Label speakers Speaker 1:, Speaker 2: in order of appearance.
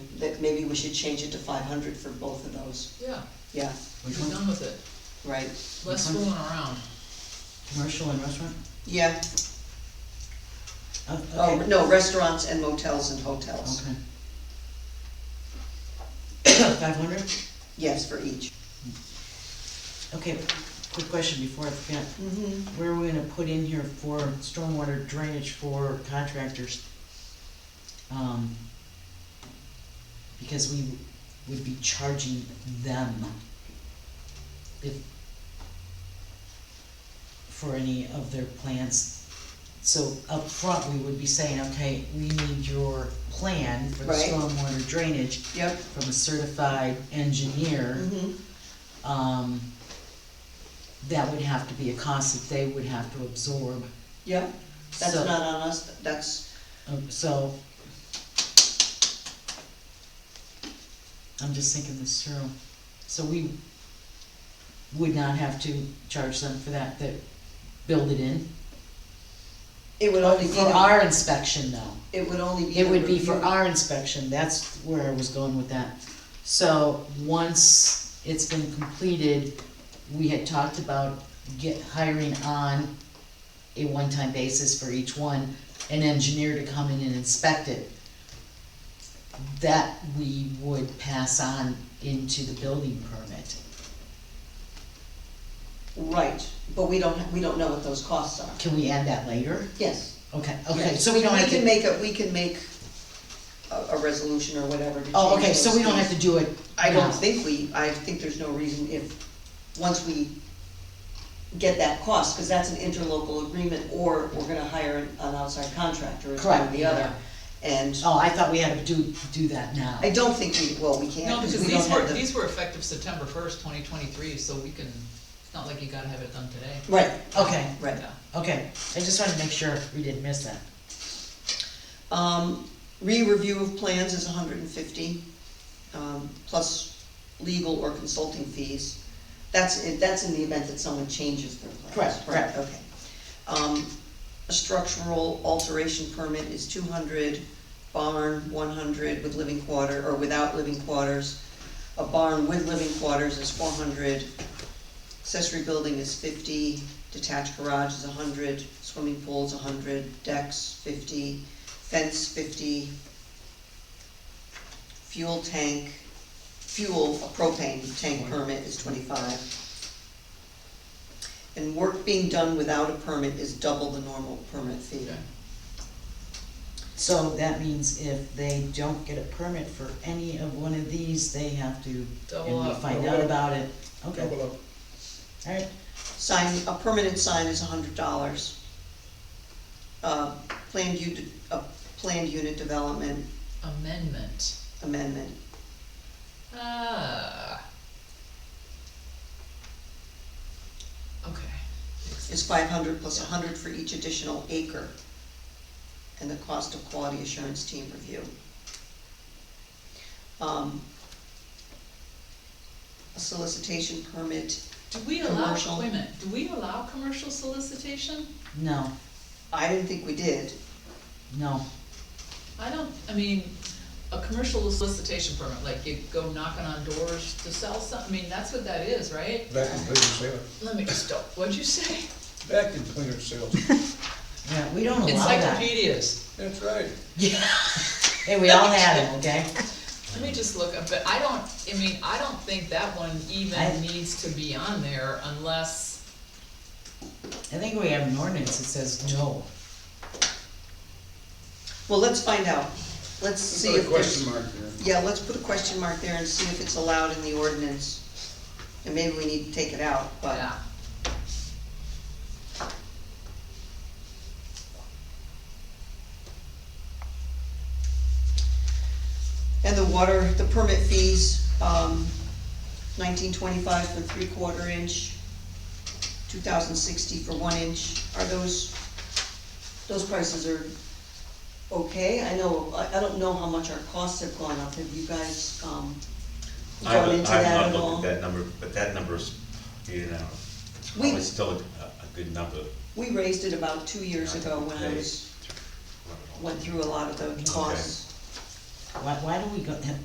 Speaker 1: that maybe we should change it to five hundred for both of those,
Speaker 2: yeah,
Speaker 1: yeah,
Speaker 3: Which
Speaker 2: we're
Speaker 3: one?
Speaker 2: done with it,
Speaker 1: right,
Speaker 2: less
Speaker 3: Which one?
Speaker 2: fooling around.
Speaker 3: Commercial and restaurant?
Speaker 1: yeah,
Speaker 3: Oh,
Speaker 1: oh,
Speaker 3: okay.
Speaker 1: no, restaurants and motels and hotels,
Speaker 3: Okay. Five hundred?
Speaker 1: yes, for each.
Speaker 3: Okay, quick question before I forget.
Speaker 1: Mm-hmm.
Speaker 3: Where are we gonna put in here for stormwater drainage for contractors? Um, because we would be charging them if, for any of their plans. So up front, we would be saying, okay, we need your plan for the
Speaker 1: Right.
Speaker 3: stormwater drainage
Speaker 1: Yep,
Speaker 3: from a certified engineer
Speaker 1: hmm
Speaker 3: um, that would have to be a cost that they would have to absorb.
Speaker 1: yep, that's
Speaker 3: So-
Speaker 1: not on us, that's,
Speaker 3: um, So. I'm just thinking this through. So we would not have to charge them for that, that build it in.
Speaker 1: it would only be,
Speaker 3: For
Speaker 1: the-
Speaker 3: our inspection though.
Speaker 1: it would only be.
Speaker 3: It
Speaker 1: the
Speaker 3: would be for
Speaker 1: review.
Speaker 3: our inspection, that's where I was going with that. So, once it's been completed, we had talked about get, hiring on a one-time basis for each one, an engineer to come in and inspect it. That we would pass on into the building permit.
Speaker 1: Right, but we don't, we don't know what those costs are,
Speaker 3: Can we add that later?
Speaker 1: yes.
Speaker 3: Okay, okay,
Speaker 1: yes.
Speaker 3: so we don't have
Speaker 1: can
Speaker 3: to,
Speaker 1: make a, we can make a, a resolution or whatever to change
Speaker 3: oh, okay, so
Speaker 1: those
Speaker 3: we don't have
Speaker 1: fees.
Speaker 3: to do it.
Speaker 1: I don't
Speaker 3: now.
Speaker 1: think we, I think there's no reason if, once we get that cost, because that's an interlocal agreement, or we're gonna hire an an outside contractor, it's one or
Speaker 3: Correct,
Speaker 1: the other. And
Speaker 3: Oh, I thought we had to do, do that now.
Speaker 1: I don't think we, well, we can't,
Speaker 2: No,
Speaker 1: because
Speaker 2: because
Speaker 1: we don't
Speaker 2: these were,
Speaker 1: have the.
Speaker 2: these were effective September first, twenty twenty-three, so we can, it's not like you gotta have it done today.
Speaker 1: Right,
Speaker 3: Okay.
Speaker 1: right.
Speaker 2: Yeah.
Speaker 3: Okay, I just wanted to make sure we didn't miss that.
Speaker 1: Um, re-review of plans is hundred and fifty, um, plus legal or consulting fees. That's, in- that's in the event that someone changes their plans.
Speaker 3: Correct, correct.
Speaker 1: Okay. Um, a structural alteration permit is two hundred, barn one hundred with living quarter, or without living quarters. A barn with living quarters is four hundred, accessory building is fifty, detached garage is hundred, swimming pool's hundred, decks fifty, fence fifty, fuel tank, fuel, a propane tank permit is twenty-five. And work being done without a permit is double the normal permit fee.
Speaker 2: Okay.
Speaker 3: So that means if they don't get a permit for any of one of these, they have to,
Speaker 2: Double
Speaker 3: and we
Speaker 2: up.
Speaker 3: find out about it. Okay,
Speaker 4: Double up.
Speaker 3: alright,
Speaker 1: Sign, a permanent sign is hundred dollars. Uh, planned u, a planned unit development
Speaker 2: Amendment,
Speaker 1: amendment,
Speaker 2: ah. Okay,
Speaker 1: is five hundred plus a hundred for each additional acre. And the cost of quality assurance team review. Um, A solicitation permit,
Speaker 2: do we allow,
Speaker 1: Commercial.
Speaker 2: wait a minute, do we allow commercial solicitation?
Speaker 3: no,
Speaker 1: I didn't think we did,
Speaker 3: no,
Speaker 2: I don't, I mean, a commercial solicitation permit, like you go knocking on doors to sell something, I mean, that's what that is, right?
Speaker 4: Back in plainer sales,
Speaker 2: Let me stop, what'd you say?
Speaker 4: back in plainer sales,
Speaker 3: yeah, we don't allow that.
Speaker 2: Encyclopedias,
Speaker 4: that's right.
Speaker 3: Yeah. Hey, we all had it, okay?
Speaker 2: let me just look up, but I don't, I mean, I don't think that one
Speaker 3: I-
Speaker 2: even needs to be on there unless,
Speaker 3: I think we have an ordinance that says no.
Speaker 1: well, let's find out, let's
Speaker 4: Let's
Speaker 1: see
Speaker 4: Put a
Speaker 1: if there's.
Speaker 4: question mark there.
Speaker 1: Yeah, let's put a question mark there and see if it's allowed in the ordinance, and maybe we need to take it out, but.
Speaker 2: yeah.
Speaker 1: And the water, the permit fees, um, nineteen twenty-five for three-quarter inch, two thousand sixty for one inch, are those, those prices are okay? I know, I, I don't know how much our costs have gone up, have you guys, um, gone
Speaker 5: I haven't,
Speaker 1: into
Speaker 5: I've
Speaker 1: that
Speaker 5: not
Speaker 1: at all?
Speaker 5: looked at that number, but that number's, you know,
Speaker 1: We-
Speaker 5: probably still a, a good number.
Speaker 1: We raised it about two years ago when I was, went through a lot of the costs.
Speaker 3: Why, why do we go,